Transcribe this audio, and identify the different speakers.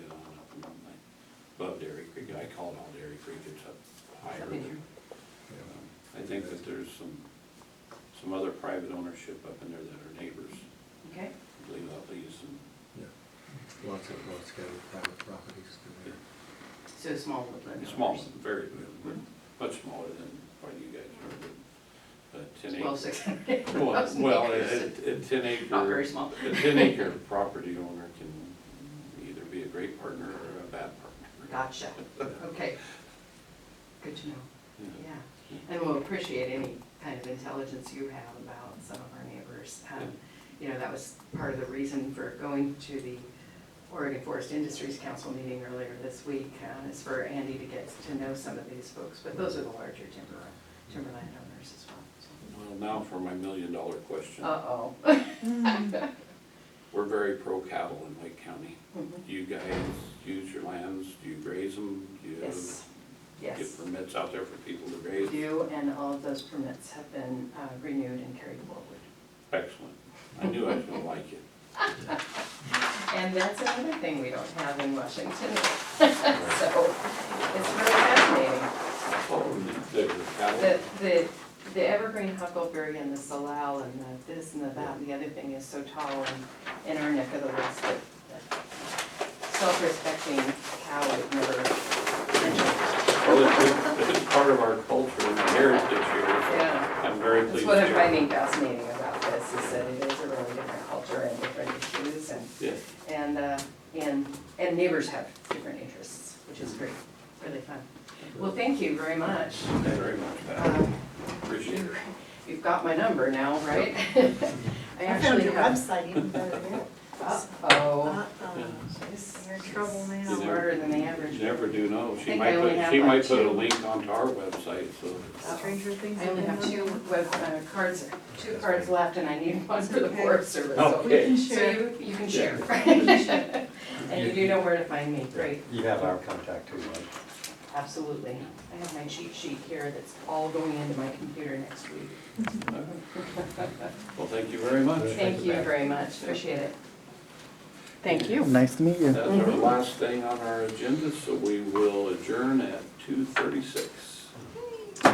Speaker 1: above Dairy Creek, I call it all Dairy Creek, it's up higher. um,
Speaker 2: Up in here.
Speaker 1: I think that there's some, some other private ownership up in there that are neighbors,
Speaker 2: Okay,
Speaker 1: I believe I'll use some,
Speaker 3: Yeah. Lots of, lots of private properties down
Speaker 2: so small woodland.
Speaker 1: it's small,
Speaker 2: owners.
Speaker 1: very, very- much smaller than what you guys are, but a ten acre.
Speaker 2: Well, six hundred.
Speaker 1: Well, well, a, a- a ten acre.
Speaker 2: Not very small.
Speaker 1: A ten acre property owner can either be a great partner or a bad partner.
Speaker 2: Gotcha, okay. Good to know,
Speaker 1: You know,
Speaker 2: yeah. And we'll appreciate any kind of intelligence you have about some of our neighbors. Um, You know, that was part of the reason for going to the Oregon Forest Industries Council meeting earlier this week, uh, is for Andy to get to know some of these folks, but those are the larger timber, timberland owners as well.
Speaker 1: Well, now for my million dollar question.
Speaker 2: so. Uh-oh.
Speaker 1: We're very pro cattle in Lake County.
Speaker 2: Mhm.
Speaker 1: Do you guys use your lands? Do you graze them? Do you
Speaker 2: Yes, yes.
Speaker 1: Get permits out there for people to graze?
Speaker 2: You and all of those permits have been uh, renewed and carried forward.
Speaker 1: Excellent. I knew I was gonna like it.
Speaker 2: And that's another thing we don't have in Washington. So it's really fascinating.
Speaker 1: The cattle,
Speaker 2: The, the, the evergreen huckleberry and the salal and the this and the that and the other thing is so tall in, in our neck of the woods that that self-respecting cow would never.
Speaker 1: well, it's, it's part of our culture and heritage here.
Speaker 2: Yeah.
Speaker 1: I'm very
Speaker 2: That's
Speaker 1: pleased.
Speaker 2: what
Speaker 1: to
Speaker 2: I'm
Speaker 1: hear.
Speaker 2: finding fascinating about this, is that it is a really different culture and different issues and,
Speaker 1: Yeah.
Speaker 2: and, uh, and, and neighbors have different interests, which is great, really fun. Well, thank you very much.
Speaker 1: Thank you very much, Pat.
Speaker 2: Uh,
Speaker 1: Appreciate it.
Speaker 2: you- You've got my number now, right? I
Speaker 4: I found
Speaker 2: actually
Speaker 4: your
Speaker 2: have.
Speaker 4: website even better than it.
Speaker 2: Uh-oh.
Speaker 4: Uh-uh, You're in trouble
Speaker 1: You
Speaker 4: now.
Speaker 1: never-
Speaker 2: Smarter than the
Speaker 1: You
Speaker 2: average.
Speaker 1: Never do know. She
Speaker 2: think I
Speaker 1: might
Speaker 2: only
Speaker 1: put,
Speaker 2: have
Speaker 1: she
Speaker 2: like
Speaker 1: might put
Speaker 2: two.
Speaker 1: a link onto our website, so.
Speaker 4: Stranger things.
Speaker 2: I only
Speaker 4: have
Speaker 2: have
Speaker 4: been
Speaker 2: two
Speaker 4: on.
Speaker 2: web, uh, cards, two cards left and I need one for the
Speaker 4: Okay.
Speaker 2: Forest Service. so-
Speaker 1: Okay.
Speaker 2: So
Speaker 4: Sure.
Speaker 2: you, you can share. And you do know where to find me, great,
Speaker 5: You have our contact too, Mike.
Speaker 2: absolutely. I have my cheat sheet here that's all going into my computer next week.
Speaker 1: Well, thank you very much.
Speaker 2: Thank you very much, appreciate it.
Speaker 6: Thank you.
Speaker 5: Nice to meet you.
Speaker 1: That's our last thing on our agenda, so we will adjourn at two thirty-six.